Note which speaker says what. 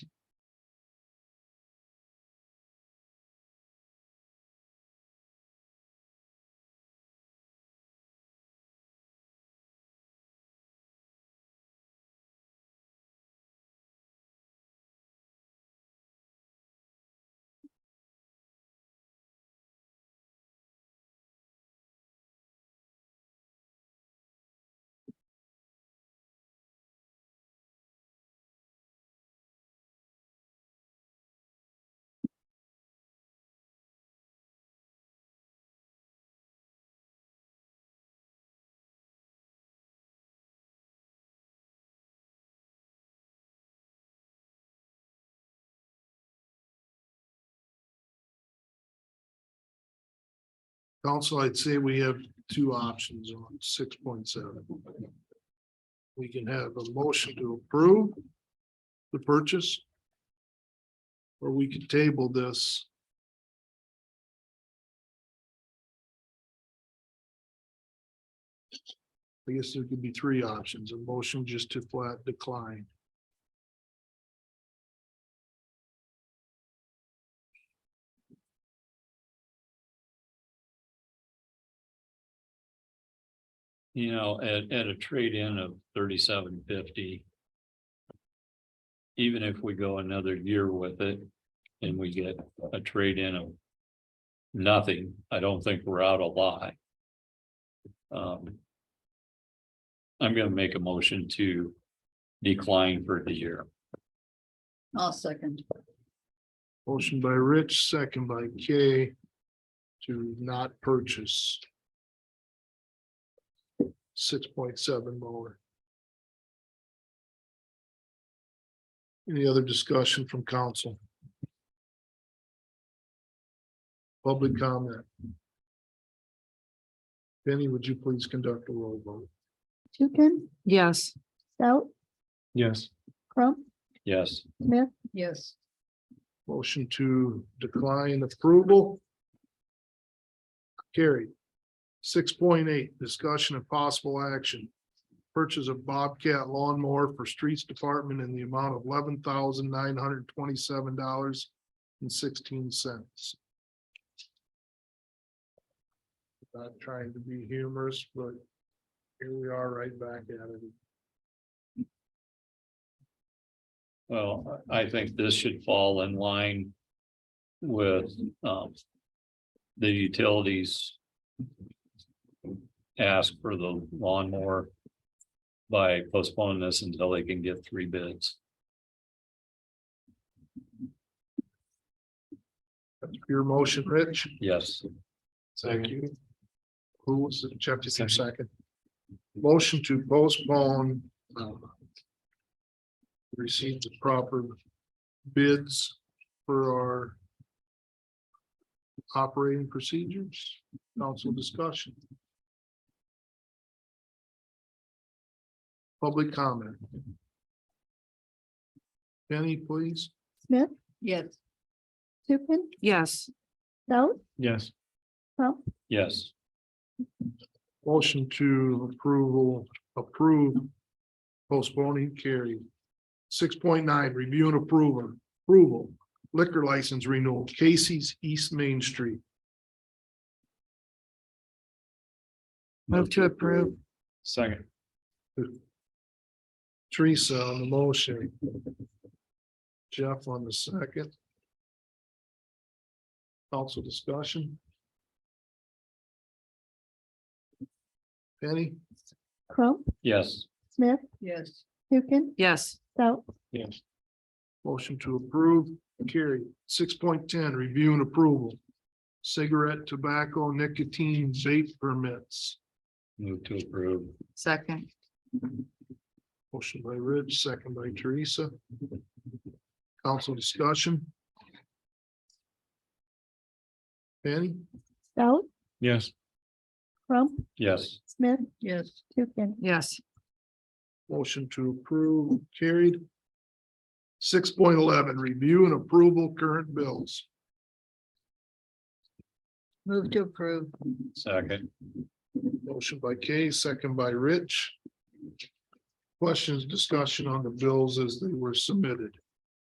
Speaker 1: Council, I'd say we have two options on six point seven. We can have a motion to approve the purchase. Or we could table this. I guess there could be three options, a motion just to flat decline.
Speaker 2: You know, at, at a trade-in of thirty-seven fifty. Even if we go another year with it and we get a trade-in of. Nothing, I don't think we're out a lot. Um. I'm gonna make a motion to decline for the year.
Speaker 3: I'll second.
Speaker 1: Motion by Rich, second by Kay. To not purchase. Six point seven mower. Any other discussion from council? Public comment? Penny, would you please conduct a roll vote?
Speaker 4: Tukin,
Speaker 5: Yes.
Speaker 4: Stout,
Speaker 1: Yes.
Speaker 4: Crump,
Speaker 2: Yes,
Speaker 4: Smith,
Speaker 3: Yes,
Speaker 1: Motion to decline approval. Carried. Six point eight, discussion of possible action. Purchase of Bobcat lawnmower for streets department in the amount of eleven thousand nine hundred twenty-seven dollars and sixteen cents. Not trying to be humorous, but here we are right back at it.
Speaker 2: well, I I think this should fall in line. With, um. The utilities. Ask for the lawnmower. By postponing this until they can get three bids.
Speaker 1: Your motion, Rich?
Speaker 2: Yes,
Speaker 1: Thank you. Who was it? Jeff, you said second. Motion to postpone. um, Receive the proper bids for our. Operating procedures, council discussion. Public comment. Penny, please.
Speaker 4: Smith,
Speaker 3: yes,
Speaker 4: Tukin,
Speaker 5: Yes.
Speaker 4: Stout,
Speaker 1: Yes.
Speaker 4: Crump,
Speaker 2: yes,
Speaker 1: Motion to approval, approve postponing carried. Six point nine, review and approval, approval liquor license renewal, Casey's East Main Street.
Speaker 5: Move to approve.
Speaker 2: second,
Speaker 1: Teresa on the motion. Jeff on the second. Council discussion. Penny?
Speaker 4: Crump,
Speaker 2: yes,
Speaker 4: Smith,
Speaker 3: yes,
Speaker 4: Tukin,
Speaker 5: Yes.
Speaker 4: Stout,
Speaker 1: Yes. Motion to approve, carried. Six point ten, review and approval. Cigarette, tobacco, nicotine, vape permits.
Speaker 2: move to approve,
Speaker 5: Second.
Speaker 1: Motion by Rich, second by Teresa. Council discussion. Penny?
Speaker 4: Stout,
Speaker 1: Yes.
Speaker 4: Crump,
Speaker 2: yes,
Speaker 4: Smith,
Speaker 3: yes,
Speaker 4: Tukin,
Speaker 5: Yes.
Speaker 1: Motion to approve, carried. Six point eleven, review and approval current bills.
Speaker 3: move to approve,
Speaker 2: second,
Speaker 1: Motion by Kay, second by Rich. Questions, discussion on the bills as they were submitted.